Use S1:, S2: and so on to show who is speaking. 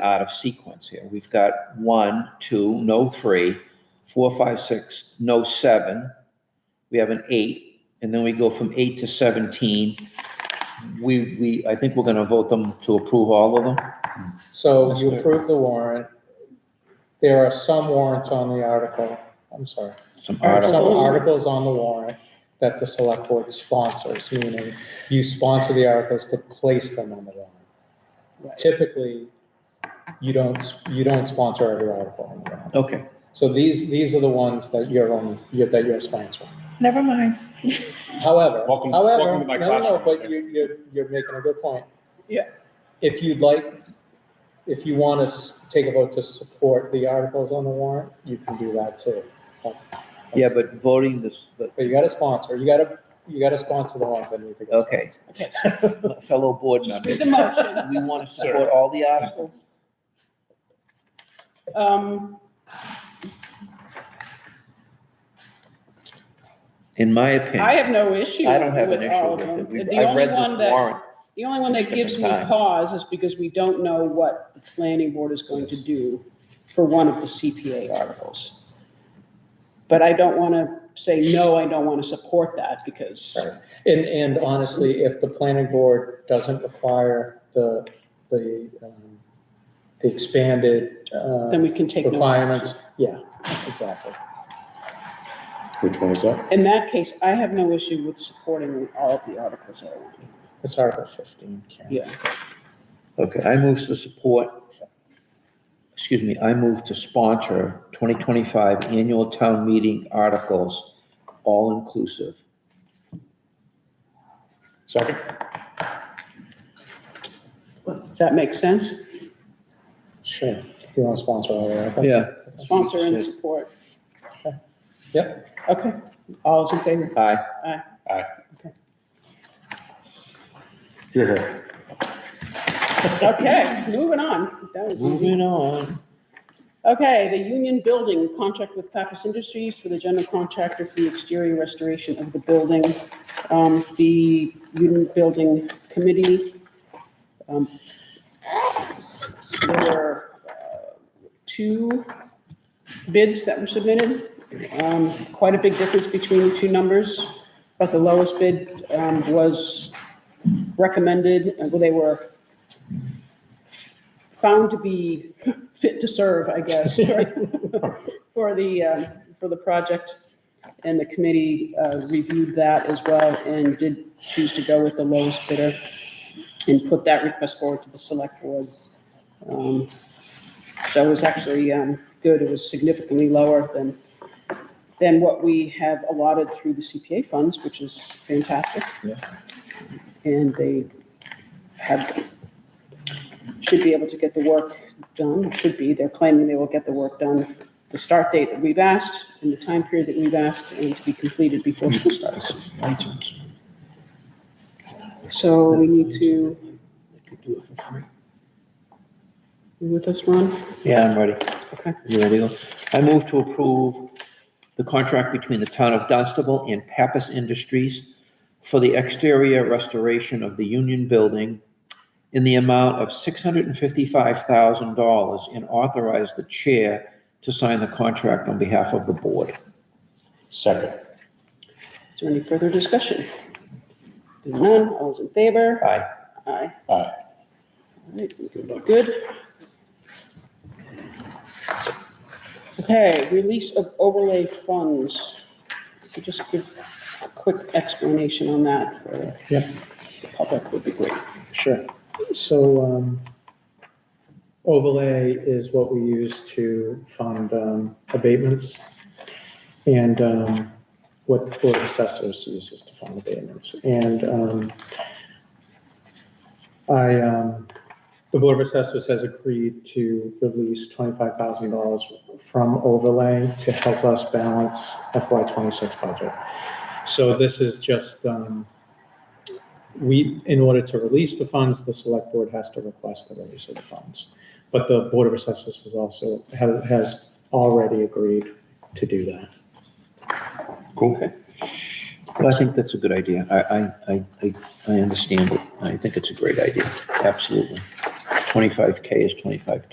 S1: out of sequence here. We've got one, two, no three, four, five, six, no seven. We have an eight, and then we go from eight to seventeen. We, we, I think we're gonna vote them to approve all of them.
S2: So
S1: That's
S2: you
S1: good.
S2: approve the warrant. There are some warrants on the article, I'm sorry,
S1: Some
S2: some
S1: articles.
S2: articles on the warrant that the select board sponsors, meaning you sponsor the articles to place them on the warrant. Typically, you don't, you don't sponsor every article on the warrant.
S1: Okay,
S2: So these, these are the ones that you're on, you're- that you're sponsoring.
S3: Never mind.
S2: However,
S4: Welcome-
S2: however,
S4: welcome
S2: no,
S4: to my
S2: no, no,
S4: classroom.
S2: but you, you're, you're making a good point.
S1: Yeah.
S2: If you'd like, if you want to take a vote to support the articles on the warrant, you can do that too.
S1: yeah, but voting this, but,
S2: But you got to sponsor, you got to, you got to sponsor the ones that need to go.
S1: okay. Fellow board members,
S3: The motion.
S1: we wanna support all the articles?
S3: Um,
S1: In my
S3: I
S1: opinion,
S3: have no issue
S1: I don't have an
S3: with all
S1: issue
S3: of them.
S1: with it.
S3: The
S1: We've- I've
S3: only
S1: read
S3: one
S1: this
S3: that,
S1: warrant.
S3: the only one that
S1: six
S3: gives me
S1: different times.
S3: pause is because we don't know what the planning board is going to do for one of the CPA articles. But I don't want to say, no, I don't want to support that because,
S2: Right. And, and honestly, if the planning board doesn't require the, the, um, the expanded, uh,
S3: then we can take no
S2: requirements,
S3: action.
S2: yeah, exactly.
S4: Which one is that?
S3: In that case, I have no issue with supporting all of the articles that are on here.
S2: It's Article fifteen, Karen.
S3: Yeah.
S1: Okay, I move to support, excuse me, I move to sponsor 2025 annual town meeting articles, all inclusive.
S4: Second?
S3: Does that make sense?
S2: Sure, you want to sponsor all the articles?
S1: Yeah.
S3: Sponsor and support.
S2: Yep.
S3: Okay. All is in favor?
S1: Aye.
S4: Aye.
S3: Okay.
S4: Here, here.
S3: Okay, moving on. That was easy.
S1: Moving on.
S3: Okay, the Union Building contract with Pappas Industries for the general contractor for the exterior restoration of the building. Um, the Union Building Committee, um, there were, uh, two bids that were submitted. Um, quite a big difference between the two numbers, but the lowest bid, um, was recommended, uh, well, they were found to be fit to serve, I guess, for- for the, um, for the project. And the committee uh, reviewed that as well and did choose to go with the lowest bidder and put that request forward to the select board. Um, So it was actually um, good. It was significantly lower than, than what we have allotted through the CPA funds, which is fantastic. And they have should be able to get the work done, should be, they're claiming they will get the work done, the start date that we've asked, and the time period that we've asked, and to be completed before school starts. So we need to, you with us, Ron?
S1: Yeah, I'm ready.
S3: Okay.
S1: You ready? I move to approve the contract between the town of Dunstable and Pappas Industries for the exterior restoration of the Union Building in the amount of $655,000 and authorize the chair to sign the contract on behalf of the board.
S4: Second.
S3: Is there any further discussion? Being none, all those in favor?
S1: Aye.
S3: Aye.
S4: Aye.
S3: Alright, Good. Okay, release of overlay funds. If you Just give a quick explanation on that for
S2: Yep.
S3: the public would be great.
S2: Sure. So, um, overlay is what we use to fund, um, abatements. And, um, what board of assessors uses to fund abatements. And, um, I, um, the board of assessors has agreed to release twenty-five thousand dollars from overlay to help us balance FY twenty-six budget. So this is just, um, we, in order to release the funds, the select board has to request the release of the funds. But the Board of Assessors has also, has, has already agreed to do that.
S4: Cool.
S1: Well, I think that's a good idea. I, I, I, I I understand it. I think it's a great idea. Absolutely. 25K is 25K.